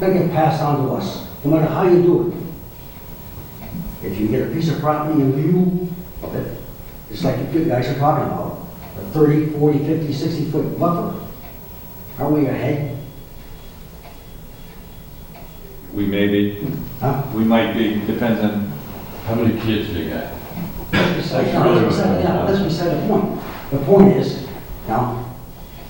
They get passed on to us, no matter how you do it. If you get a piece of property in view of it, it's like you guys are talking about, a 30, 40, 50, 60 foot buffer, are we ahead? We may be, Huh? we might be, depends on How many kids do you got? That's what we said, yeah, that's what we said, the point. The point is, now,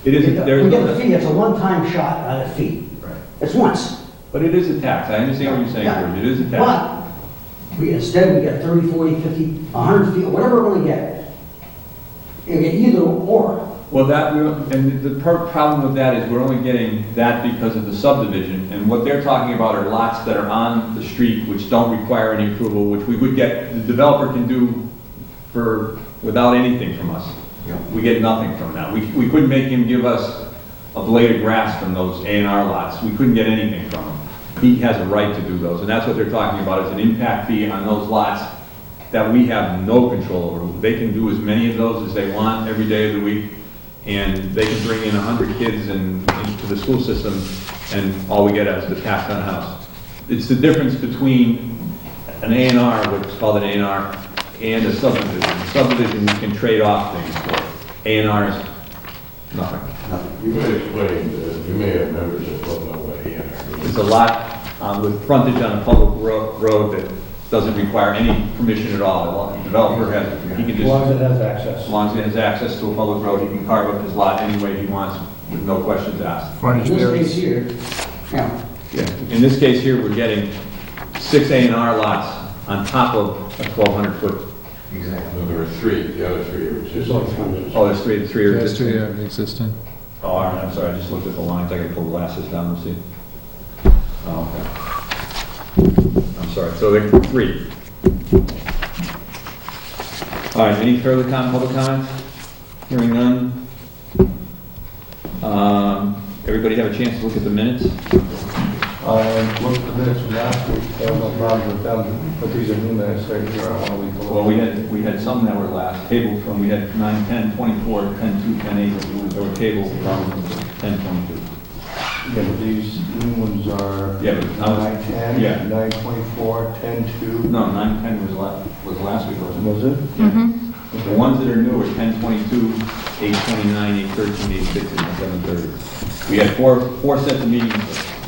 It we is, get the- there's we get the no, fee, it's a one-time shot at a fee. Right. It's once. but it is a tax, I understand what you're saying, George, it is a tax. But, we, instead, we get 30, 40, 50, 100 feet, whatever we're gonna get. You get either or. Well, that, we- and the per- problem with that is we're only getting that because of the subdivision, and what they're talking about are lots that are on the street which don't require any approval, which we would get, the developer can do for, without anything from us. We get nothing from that, we, we couldn't make him give us a blade of grass from those A and R lots, we couldn't get anything from him. He has a right to do those, and that's what they're talking about, is an impact fee on those lots that we have no control over. They can do as many of those as they want every day of the week, and they can bring in 100 kids and, into the school system, and all we get is the tax on house. It's the difference between an A and R, what's called an A and R, and a subdivision. Subdivision, we can trade off things for. A and R is nothing. You may explain, that you may have members that don't know what A and R It's a lot um, with frontage on a public ro- road that doesn't require any permission at all. The developer has, he can As just... long as it has As access. long as he has access to a public road, he can carve up his lot any way he wants with no questions asked. In this case here, yeah, In this case here, we're getting six A and R lots on top of a 1,200 foot, No, there were three, the other three were just. There's only three. oh, there's three, three are Yes, existing. two, yeah, existing. Oh, all right, I'm sorry, I just looked at the lines, I gotta pull the glasses down and see. Oh, okay. I'm sorry, so there are three. All right, any further com, public comments? Hearing none. Um, everybody have a chance to look at the minutes? I looked at uh, the minutes from last week, there was no problem with them, but these are new minutes, they're here on a week. Well, we had, we had some that were last tabled from, we had nine, ten, twenty-four, ten, two, ten, eight, that were tabled from ten, twenty-two. Yeah, but these new ones are Yeah, but I was- nine yeah. ten, nine twenty-four, ten two. No, nine, ten was last, was last week, wasn't it? Was it? The ones that are new are ten twenty-two, eight twenty-nine, eight thirteen, eight sixteen, and seven thirty. We had four, four sets of meetings,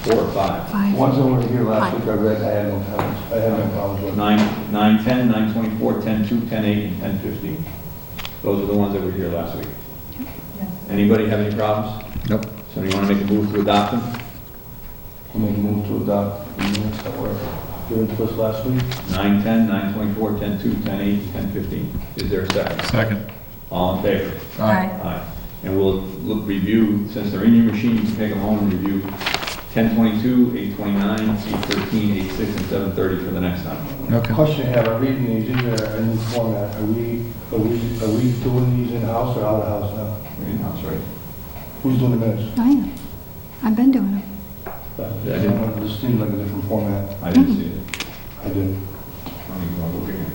four or five. Ones that were here last week, I read, I had no problems, I had no problems with. Nine, nine ten, nine twenty-four, ten two, ten eight, and ten fifteen. Those are the ones that were here last week. Anybody have any problems? Nope. Somebody wanna make a move to adopt them? I mean, move to adopt the minutes that were given to us last week. Nine ten, nine twenty-four, ten two, ten eight, and ten fifteen. Is there a second? Second. All in favor? Aye. Aye. And we'll look- review, since they're in your machine, you can take them home and review 1022, 829, 813, 86, and 730 for the next time. Okay. Question I have, I'm reading these, these are in new format, are we, are we, are we doing these in-house or out of house now? We're in-house, right? Who's doing the minutes? I am. Oh, I've been doing it. This seems like a different format. I didn't see it. I did. Let me go look again.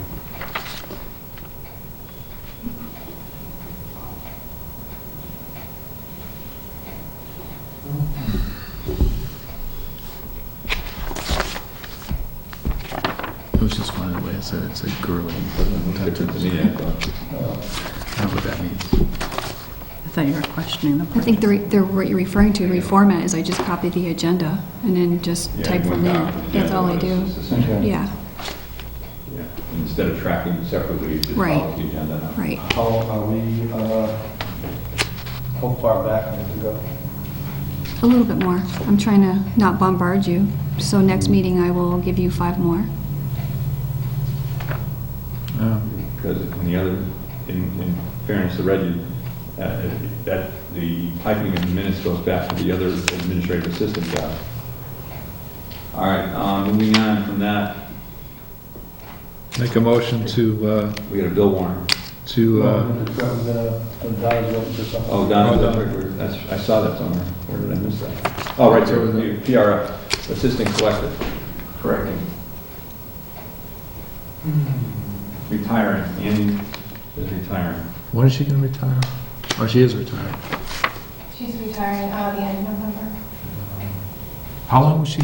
It was just one of the way I said it, it's a girly. Different to me, I thought. I don't know what that means. I thought you were questioning them. I think the, re- the, what you're referring to, reformat, is I just copy the agenda and then just Yeah, type it went from there. down to the That's agenda, all I but do. it's just essentially- Yeah, yeah. Instead of tracking separately, you just Right. follow the agenda. now. right. How are we, uh, how far back do we have to go? A little bit more. I'm trying to not bombard you. So next meeting, I will give you five more. Yeah. Because in the other, in, in fairness to Reggie, uh, that, the typing of the minutes goes back to the other administrative assistant guy. All right, um, moving on from that, Make a motion to, uh, we got a bill warrant. to, uh, We've got the- the Don's looking for something. Oh, Donna's Oh, up Donna. there. that's, I saw that somewhere, where did I miss that? Oh, right there, the PRF, Assistant Collector. Correcting. Retiring, Andy is retiring. when is she gonna retire? Oh, she is retired. She's retiring uh, the end of November. How long was she